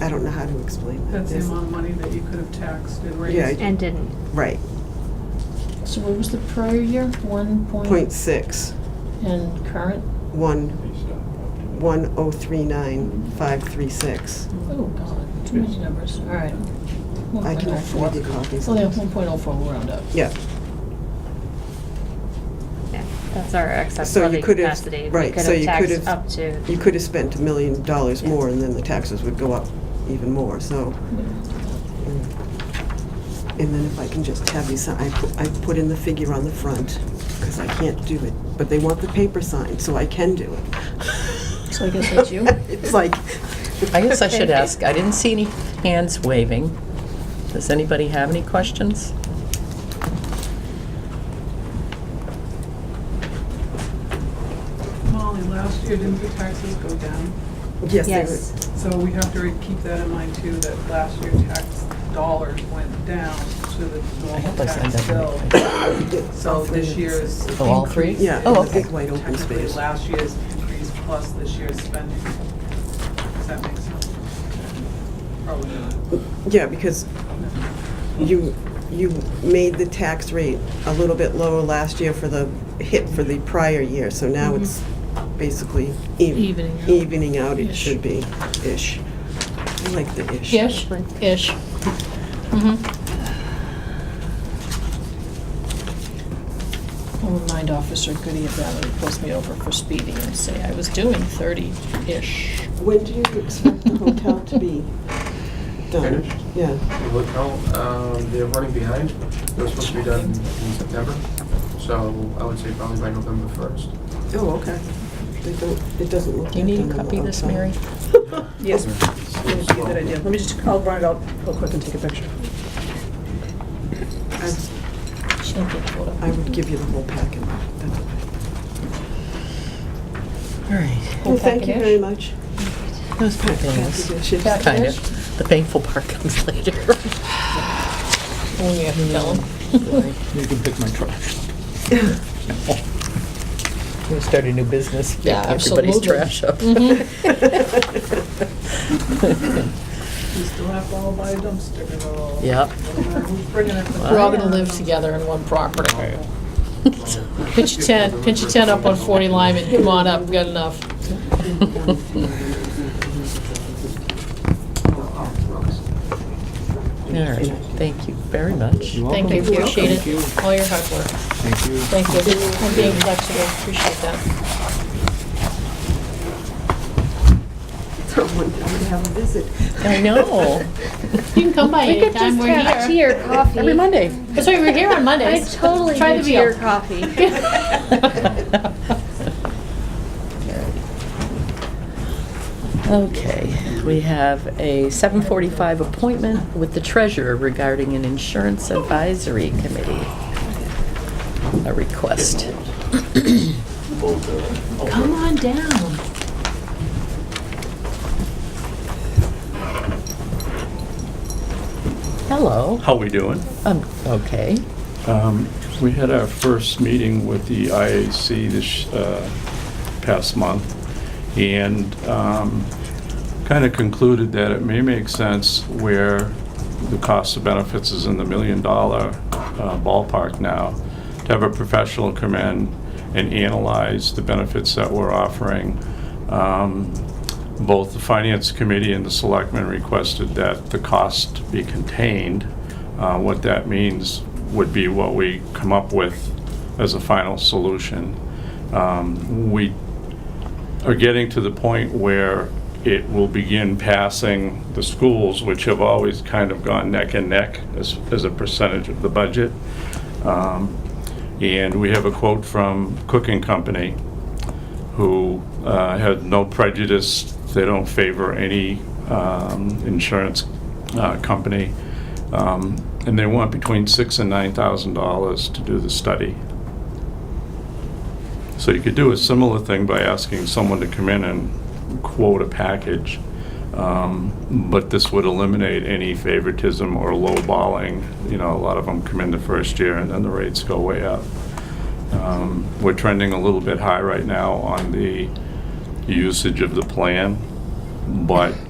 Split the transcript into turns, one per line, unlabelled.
I don't know how to explain that.
That's the
There's-
amount of money that you could have taxed and
Yeah.
raised.
and didn't.
Right,
So what was the prior year? One
Oh.
point?
point six,
And current?
one, one oh three nine, five three six.
Oh, God, too many numbers. All right.
I can afford the
1.04.
copies.
Oh, yeah, 1.04, we'll round up.
Yeah,
Yeah, that's our excess
So you
levy
could have-
capacity. We
right,
could
so
have
you could have-
taxed Up to,
you could have spent a million dollars
Yeah.
more and then the taxes would go up even more, so. Mm. And then if I can just have you sign, I put, I put in the figure on the front, because I can't do it, but they want the paper signed, so I can do it.
So I guess that's you?
It's like,
I guess I should ask, I didn't see any hands waving. Does anybody have any questions?
Molly, last year, didn't the taxes go down?
yes, they
yes.
would.
So we have to re- keep that in mind too, that last year tax dollars went down to the
I
normal
hope I signed
tax
up.
bill.
in the right
So this year's
Oh, all three?
increase.
Yeah,
Oh,
in the
okay.
big white open
Technically,
space.
last year's increase plus this year's spending. Does that make sense? Probably not.
Yeah, because you, you made the tax rate a little bit lower last year for the hit for the prior year, so now
Mm-hmm.
it's basically ev-
Evening out.
evening out, it
Ish.
should be, ish. I like the ish.
Ish, ish. Mm-hmm. I'll remind Officer Goody of that when he pulls me over for speeding and say, I was doing 30-ish.
When do you expect the hotel to be done?
Finished?
Yeah.
The hotel, um, they're running behind. It was supposed to be done in September, so I would say probably by November first.
Oh, okay. They don't, it doesn't look like
Do you need
done
to
on the
copy this,
outside.
Mary?
Yes, give that idea. Let me just, I'll run it out real quick and take a picture.
I'd-
She'll get pulled up.
I would give you the whole packet. That's okay.
All right.
Whole
Well, thank you
packet-ish?
very much.
That was fabulous.
Packet-ish.
Kind of. The painful part comes later.
Oh, yeah, tell him.
You can pick my trash.
We start a new business. pick
Yeah,
Everybody's
absolutely.
trash up.
We still have to all buy a dumpster and all.
Yep.
Who's bringing it?
We're all gonna live together in one property. Pinch a tent, pinch a tent up on 40 Lyman, come on up, we got enough.
All right, thank you very much.
You're
Thank you,
welcome.
appreciate
Thank you.
it, all your hard work.
Thank you.
Thank you for being flexible, appreciate that.
Someone would have a visit.
I know.
You can come by
We could
anytime,
just
we're
have tea
here.
or coffee.
Every Monday.
That's right, we're here on
I
Mondays.
totally
Try the
do tea or
veal.
coffee.
Okay, we have a 7:45 appointment with the treasurer regarding an insurance advisory committee. A request.
Come on down.
Hello,
How we doing?
um, okay.
Um, We had our first meeting with the IAC this uh, past month, and um, kind of concluded that it may make sense where the cost of benefits is in the million-dollar ballpark now, to have a professional come in and analyze the benefits that we're offering. Um, Both the Finance Committee and the Selectmen requested that the cost be contained. Uh, What that means would be what we come up with as a final solution. Um, We are getting to the point where it will begin passing the schools, which have always kind of gone neck and neck as, as a percentage of the budget. Um, And we have a quote from Cooking Company, who uh, had no prejudice, they don't favor any um, insurance uh, company, Um, and they want between six and nine thousand dollars to do the study. So you could do a similar thing by asking someone to come in and quote a package, um, but this would eliminate any favoritism or lowballing. You know, a lot of them come in the first year and then the rates go way up. Um, We're trending a little bit high right now on the usage of the plan, but